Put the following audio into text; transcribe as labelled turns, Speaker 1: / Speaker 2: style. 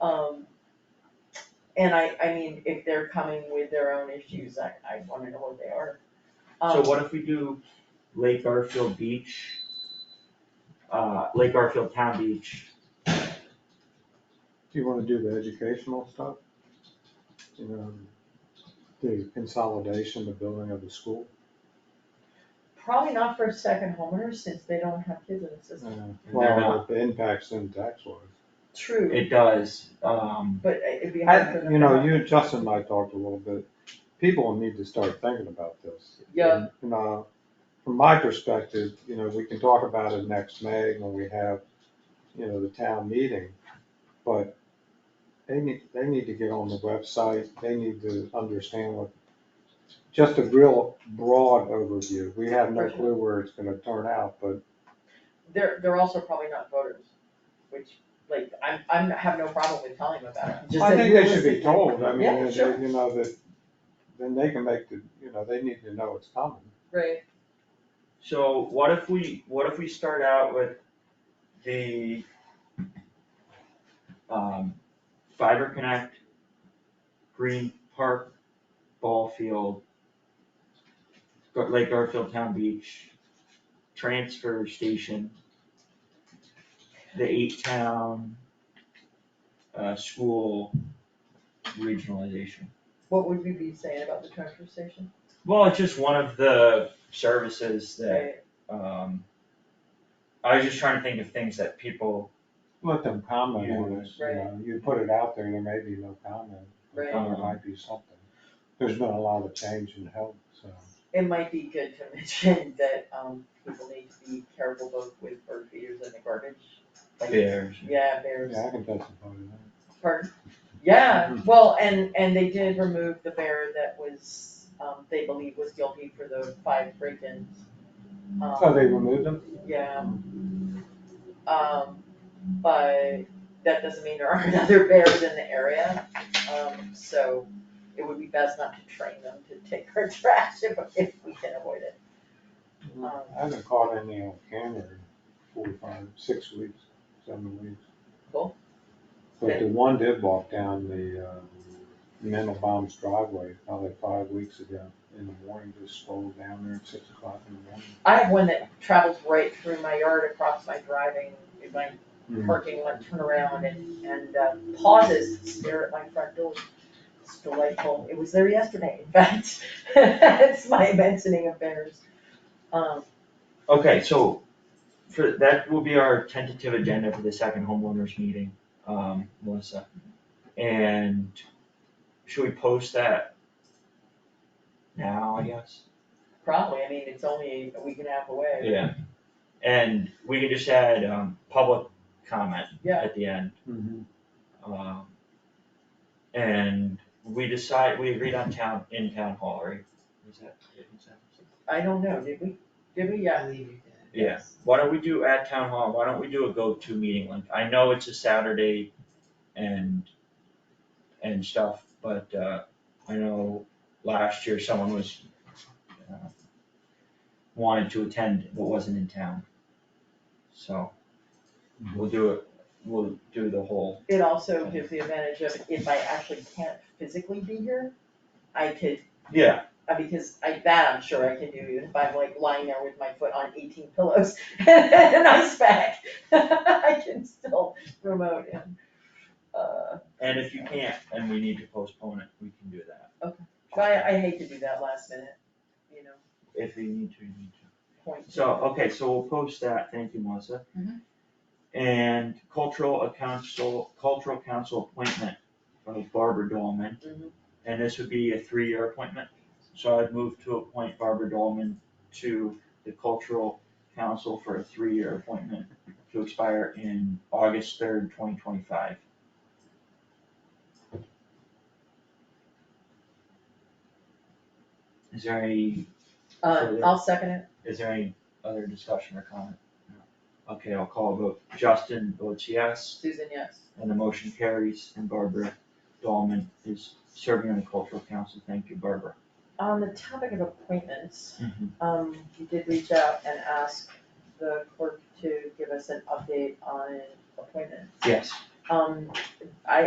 Speaker 1: Um, and I, I mean, if they're coming with their own issues, I, I wanna know what they are.
Speaker 2: So
Speaker 1: Um,
Speaker 2: what if we do Lake Garfield Beach? Uh, Lake Garfield Town Beach,
Speaker 3: Do you wanna do the educational stuff? You know, the consolidation, the building of the school?
Speaker 1: Probably not for second homeowners, since they don't have kids in the system,
Speaker 3: Uh,
Speaker 2: Why
Speaker 3: Well,
Speaker 2: not?
Speaker 3: the impacts in tax laws.
Speaker 1: true,
Speaker 2: it does, um,
Speaker 1: but it'd be hard for
Speaker 3: Mm. I,
Speaker 1: them.
Speaker 3: you know,
Speaker 1: to-
Speaker 3: you and Justin and I talked a little bit, people need to start thinking about this.
Speaker 1: Yeah.
Speaker 3: You know, uh, from my perspective, you know, we can talk about it next May when we have, you know, the town meeting. But they need, they need to get on the website, they need to understand what, just a real broad overview. We have no
Speaker 1: For sure.
Speaker 3: clue where it's gonna turn out, but
Speaker 1: They're, they're also probably not voters, which, like, I'm, I'm, have no problem with telling them about it, just
Speaker 3: I
Speaker 1: that
Speaker 3: think they should be
Speaker 1: realistically-
Speaker 3: told, I mean,
Speaker 1: Yeah,
Speaker 3: they-
Speaker 1: sure.
Speaker 3: you know, that, then they can make the, you know, they need to know it's coming.
Speaker 1: Right,
Speaker 2: so what if we, what if we start out with the um, Fiber Connect, Green Park, Ball Field, Gar- Lake Garfield Town Beach, Transfer Station, the eight town, uh, school regionalization.
Speaker 1: what would we be saying about the transfer station?
Speaker 2: Well, it's just one of the services that,
Speaker 1: Right,
Speaker 2: um, I was just trying to think of things that people,
Speaker 3: Let them comment on
Speaker 2: Yeah.
Speaker 3: it, you know, you put it out there, there may be no comment, but
Speaker 1: Right,
Speaker 3: there might be something. There's been a lot of change in health, so.
Speaker 1: it might be good to mention that, um, people need to be careful both with bird feeders and the garbage, like,
Speaker 2: bears.
Speaker 1: yeah, bears.
Speaker 3: Yeah, I can testify to that.
Speaker 1: Pardon? Yeah,
Speaker 3: Mhm.
Speaker 1: well, and, and they did remove the bear that was, um, they believe was guilty for the five break-ins. Um,
Speaker 3: So Oh, they removed them?
Speaker 1: Yeah. Um, but that doesn't mean there aren't other bears in the area, um, so it would be best not to train them to take our trash if, if we can avoid it. Um,
Speaker 3: I haven't caught any on camera in four, five, six weeks, seven weeks.
Speaker 1: Cool.
Speaker 3: But the one did walk down the, uh, Mandelbaum's driveway probably five weeks ago in the morning, just strolled down there at six o'clock in the morning.
Speaker 1: I have one that travels right through my yard across my driving, my
Speaker 3: Mhm.
Speaker 1: parking lot turnaround and, and uh, pauses to stare at my front door. It's delightful. It was there yesterday, in fact. It's my mentioning of bears. Um,
Speaker 2: Okay, so for, that will be our tentative agenda for the second homeowners meeting, um, Melissa. And should we post that now, I guess?
Speaker 1: probably, I mean, it's only a week and a half away.
Speaker 2: Yeah. And we can just add, um, public comment
Speaker 1: Yeah.
Speaker 2: at the end.
Speaker 3: Mhm.
Speaker 2: Um, and we decide, we agreed on town, in town hall, right? Was that,
Speaker 1: I don't know, did we? Did we? Yeah.
Speaker 2: Yeah, why don't we do at town hall, why don't we do a go-to meeting link? I know it's a Saturday and, and stuff, but, uh, I know last year someone was, uh, wanted to attend but wasn't in town. So, we'll do it, we'll do the whole,
Speaker 1: It also gives the advantage of if I actually can't physically be here, I could,
Speaker 2: yeah,
Speaker 1: uh, because I, that I'm sure I can do, even if I'm like lying there with my foot on eighteen pillows and I spec. I can still remote in. Uh,
Speaker 2: And if you can't, and we need to postpone it, we can do that.
Speaker 1: Okay. but I, I hate to do that last minute, you know,
Speaker 2: If we need to, we need to.
Speaker 1: point.
Speaker 2: So, okay, so we'll post that, thank you, Melissa.
Speaker 1: Mhm.
Speaker 2: And cultural a council, cultural council appointment of Barbara Dolman.
Speaker 1: Mhm.
Speaker 2: And this would be a three-year appointment, so I'd move to appoint Barbara Dolman to the cultural council for a three-year appointment to expire in August third, twenty twenty-five. Is there any
Speaker 1: Uh, I'll second it.
Speaker 2: is there any other discussion or comment? Okay, I'll call a vote. Justin votes yes,
Speaker 1: Susan, yes.
Speaker 2: and the motion carries, and Barbara Dahlman is serving on the cultural council. Thank you, Barbara.
Speaker 1: On the topic of appointments, Um, we did reach out and ask the clerk to give us an update on appointments.
Speaker 2: Yes.
Speaker 1: Um, I